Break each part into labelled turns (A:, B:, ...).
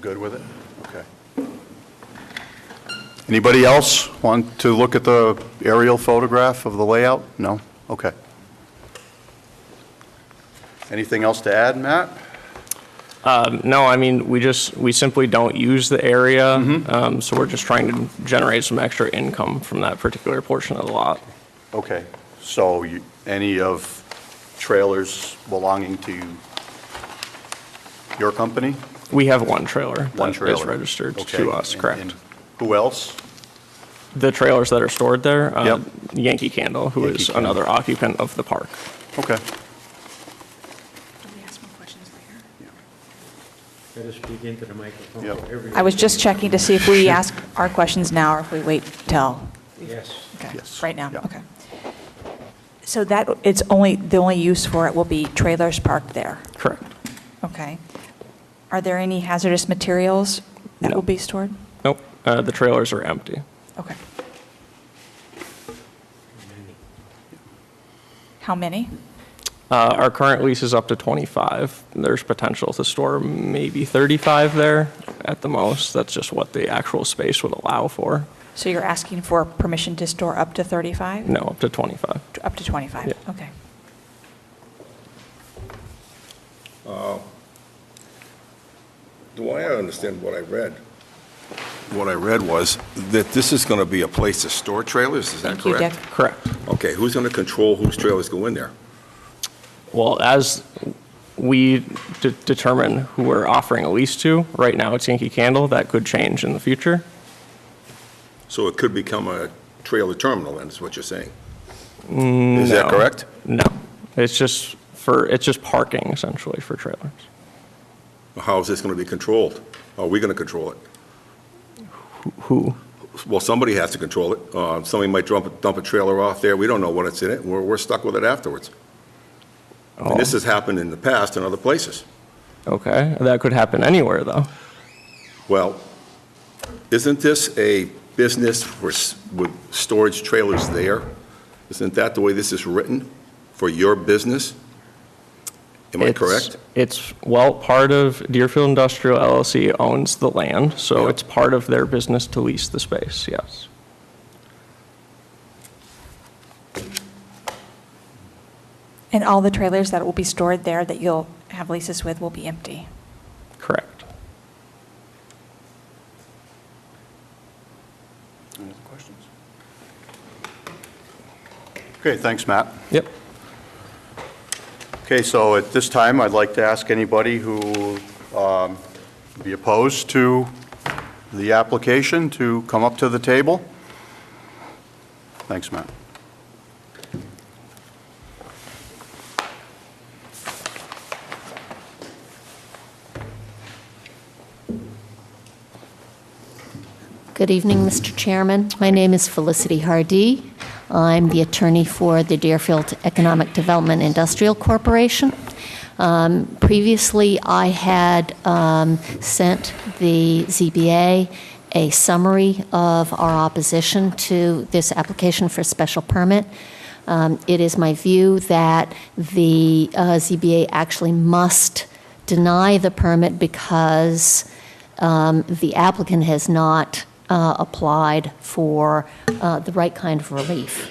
A: Good with it? Okay. Anybody else want to look at the aerial photograph of the layout? No? Okay. Anything else to add, Matt?
B: No, I mean, we just, we simply don't use the area,
A: Mm-hmm.
B: um, so we're just trying to generate some extra income from that particular portion of the lot.
A: Okay, so you- any of trailers belonging to your company?
B: We have one trailer.
A: One trailer?
B: That is registered
A: Okay.
B: to us,
A: And-
B: correct.
A: and Who else?
B: The trailers that are stored there, uh,
A: Yep.
B: Yankee Candle, who
A: Yankee
B: is
A: Candle.
B: another occupant of the park.
A: Okay.
C: Can we ask more questions later?
D: Better speak into the microphone.
A: Yep.
D: Everyone-
C: I was just checking to see if we ask our questions now or if we wait till,
D: Yes.
C: okay,
A: Yes.
C: right now,
A: Yeah.
C: okay. So that, it's only, the only use for it will be trailers parked there,
B: Correct.
C: okay? Are there any hazardous materials that
B: No.
C: will be stored?
B: Nope, uh, the trailers are empty.
C: Okay. How many?
B: Uh, Our current lease is up to 25. There's potential to store maybe 35 there at the most. That's just what the actual space would allow for.
C: So you're asking for permission to store up to 35?
B: No, up to 25.
C: Up to 25,
B: Yeah.
C: okay.
E: The way I understand what I read, what I read was that this is going to be a place to store trailers, is that
C: Thank you,
E: correct?
C: Dick.
B: Correct.
E: Okay, who's going to control whose trailers go in there?
B: Well, as we de- determine who we're offering a lease to, right now it's Yankee Candle. That could change in the future.
E: So it could become a trailer terminal, then, is what you're saying? Is that
B: no.
E: correct?
B: No, it's just for, it's just parking essentially for trailers.
E: How is this going to be controlled? Are we going to control it?
B: Who?
E: Well, somebody has to control it. Uh, Somebody might dump, dump a trailer off there, we don't know what it's in it, we're, we're stuck with it afterwards.
B: Oh.
E: And this has happened in the past in other places.
B: Okay, that could happen anywhere though.
E: Well, isn't this a business for, s- with storage trailers there? Isn't that the way this is written, for your business? Am I
B: It's-
E: correct?
B: It's, well, part of Deerfield Industrial LLC owns the land, so
E: Yeah.
B: it's part of their business to lease the space, yes.
C: And all the trailers that will be stored there that you'll have leases with will be empty?
B: Correct.
A: Any other questions? Okay, thanks, Matt.
B: Yep.
A: Okay, so at this time, I'd like to ask anybody who um, be opposed to the application to come up to the table. Thanks, Matt.
F: Good evening, Mr. Chairman. My name is Felicity Hardy. I'm the attorney for the Deerfield Economic Development Industrial Corporation. Um, Previously, I had um, sent the ZBA a summary of our opposition to this application for special permit. Um, It is my view that the uh, ZBA actually must deny the permit because um, the applicant has not uh, applied for uh, the right kind of relief.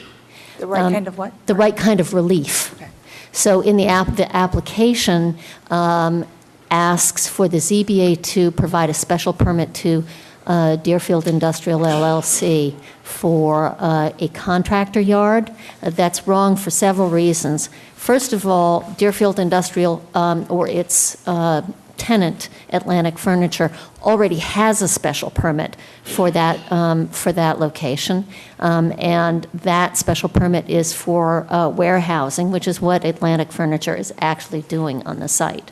C: The right kind of what?
F: Um, The right kind of relief.
C: Okay.
F: So in the app, the application um, asks for the ZBA to provide a special permit to uh, Deerfield Industrial LLC for uh, a contractor yard. Uh, That's wrong for several reasons. First of all, Deerfield Industrial um, or its uh, tenant, Atlantic Furniture, already has a special permit for that, um, for that location. Um, And that special permit is for uh, warehousing, which is what Atlantic Furniture is actually doing on the site.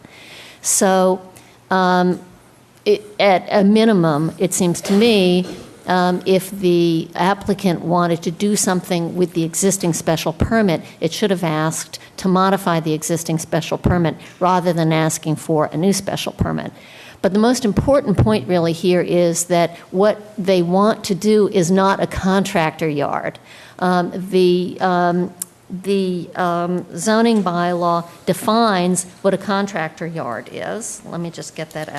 F: So um, it- at a minimum, it seems to me, um, if the applicant wanted to do something with the existing special permit, it should have asked to modify the existing special permit rather than asking for a new special permit. But the most important point really here is that what they want to do is not a contractor yard. Um, The, um, the um, zoning bylaw defines what a contractor yard is. Let me just get that